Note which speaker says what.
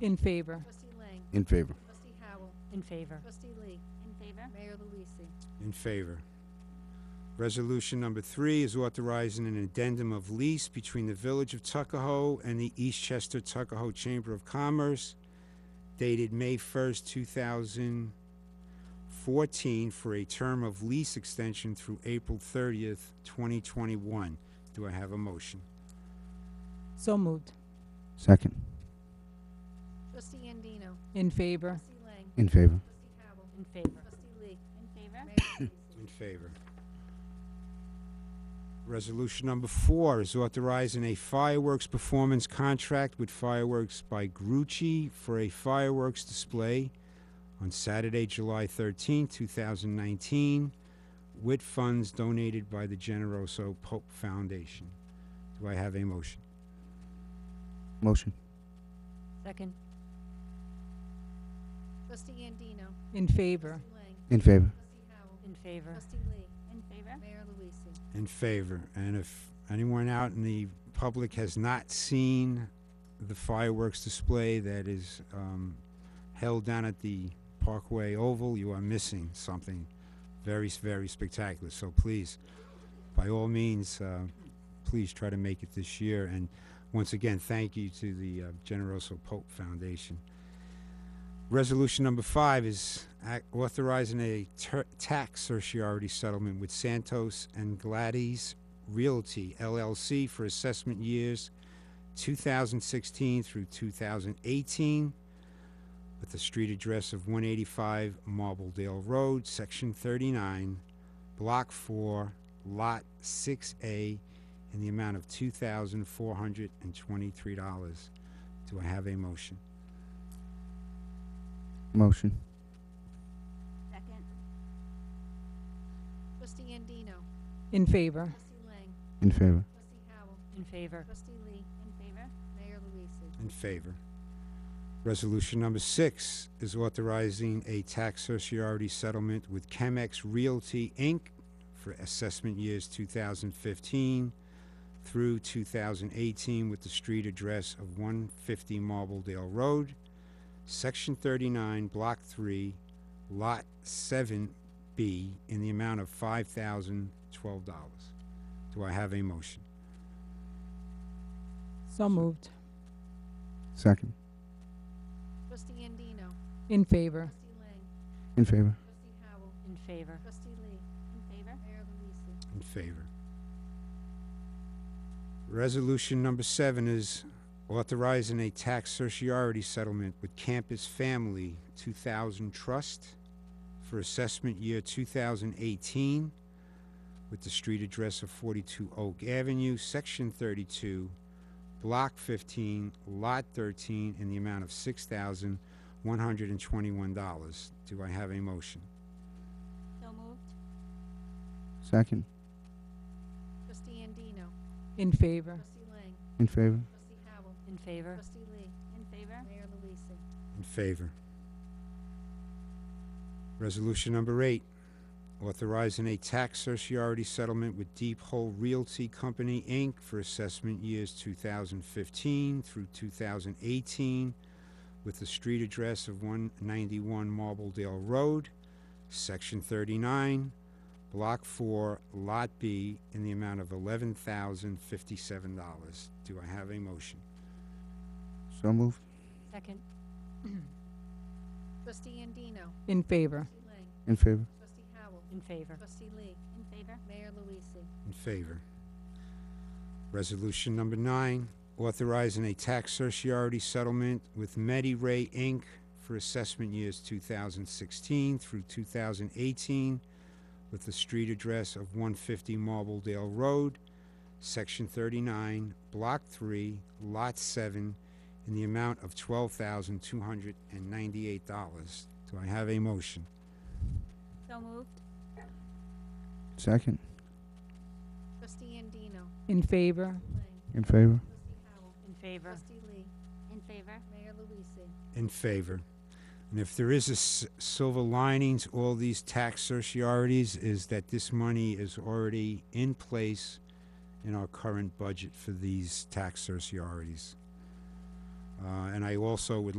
Speaker 1: In favor.
Speaker 2: Trustee Lang.
Speaker 3: In favor.
Speaker 2: Trustee Howell.
Speaker 4: In favor.
Speaker 2: Trustee Lee.
Speaker 5: In favor?
Speaker 2: Mayor Luise.
Speaker 6: In favor. Resolution number three is authorizing an addendum of lease between the Village of Tuckahoe and the Eastchester Tuckahoe Chamber of Commerce dated May 1st, 2014, for a term of lease extension through April 30th, 2021. Do I have a motion?
Speaker 1: So moved.
Speaker 3: Second.
Speaker 2: Trustee Andino.
Speaker 1: In favor.
Speaker 2: Trustee Lang.
Speaker 3: In favor.
Speaker 2: Trustee Howell.
Speaker 4: In favor.
Speaker 2: Trustee Lee.
Speaker 5: In favor?
Speaker 2: Mayor Luise.
Speaker 6: In favor. Resolution number four is authorizing a fireworks performance contract with fireworks by Grucci for a fireworks display on Saturday, July 13, 2019, with funds donated by the Generoso Pope Foundation. Do I have a motion?
Speaker 3: Motion.
Speaker 4: Second.
Speaker 2: Trustee Andino.
Speaker 1: In favor.
Speaker 2: Trustee Lang.
Speaker 3: In favor.
Speaker 2: Trustee Howell.
Speaker 4: In favor.
Speaker 2: Trustee Lee.
Speaker 5: In favor?
Speaker 2: Mayor Luise.
Speaker 6: In favor. And if anyone out in the public has not seen the fireworks display that is um, held down at the Parkway Oval, you are missing something very, s- very spectacular. So please, by all means, uh, please try to make it this year. And once again, thank you to the uh, Generoso Pope Foundation. Resolution number five is ac- authorizing a ter- tax certiorari settlement with Santos and Gladys Realty LLC for assessment years 2016 through 2018 with the street address of 185 Marbledale Road, Section 39, Block 4, Lot 6A, in the amount of $2,423. Do I have a motion?
Speaker 3: Motion.
Speaker 5: Second?
Speaker 2: Trustee Andino.
Speaker 1: In favor.
Speaker 2: Trustee Lang.
Speaker 3: In favor.
Speaker 2: Trustee Howell.
Speaker 4: In favor.
Speaker 2: Trustee Lee.
Speaker 5: In favor?
Speaker 2: Mayor Luise.
Speaker 6: In favor. Resolution number six is authorizing a tax sociarity settlement with Chemex Realty, Inc. for assessment years 2015 through 2018 with the street address of 150 Marbledale Road, Section 39, Block 3, Lot 7B, in the amount of $5,012. Do I have a motion?
Speaker 1: So moved.
Speaker 3: Second.
Speaker 2: Trustee Andino.
Speaker 1: In favor.
Speaker 2: Trustee Lang.
Speaker 3: In favor.
Speaker 2: Trustee Howell.
Speaker 4: In favor.
Speaker 2: Trustee Lee.
Speaker 5: In favor?
Speaker 2: Mayor Luise.
Speaker 6: In favor. Resolution number seven is authorizing a tax certiorari settlement with Campus Family 2000 Trust for assessment year 2018 with the street address of 42 Oak Avenue, Section 32, Block 15, Lot 13, in the amount of $6,121. Do I have a motion?
Speaker 5: So moved?
Speaker 3: Second.
Speaker 2: Trustee Andino.
Speaker 1: In favor.
Speaker 2: Trustee Lang.
Speaker 3: In favor.
Speaker 2: Trustee Howell.
Speaker 4: In favor.
Speaker 2: Trustee Lee.
Speaker 5: In favor?
Speaker 2: Mayor Luise.
Speaker 6: In favor. Resolution number eight, authorizing a tax certiorari settlement with Deep Hole Realty Company, Inc. for assessment years 2015 through 2018 with the street address of 191 Marbledale Road, Section 39, Block 4, Lot B, in the amount of $11,057. Do I have a motion?
Speaker 3: So moved.
Speaker 4: Second.
Speaker 2: Trustee Andino.
Speaker 1: In favor.
Speaker 2: Trustee Lang.
Speaker 3: In favor.
Speaker 2: Trustee Howell.
Speaker 4: In favor.
Speaker 2: Trustee Lee.
Speaker 5: In favor?
Speaker 2: Mayor Luise.
Speaker 6: In favor. Resolution number nine, authorizing a tax certiorari settlement with Medi Ray Inc. for assessment years 2016 through 2018 with the street address of 150 Marbledale Road, Section 39, Block 3, Lot 7, in the amount of $12,298. Do I have a motion?
Speaker 5: So moved?
Speaker 3: Second.
Speaker 2: Trustee Andino.
Speaker 1: In favor.
Speaker 2: Lang.
Speaker 3: In favor.
Speaker 2: Trustee Howell.
Speaker 4: In favor.
Speaker 2: Trustee Lee.
Speaker 5: In favor?
Speaker 2: Mayor Luise.
Speaker 6: in favor. And if there is a s- silver lining to all these tax certiorarities is that this money is already in place in our current budget for these tax certiorarities. Uh, and I also would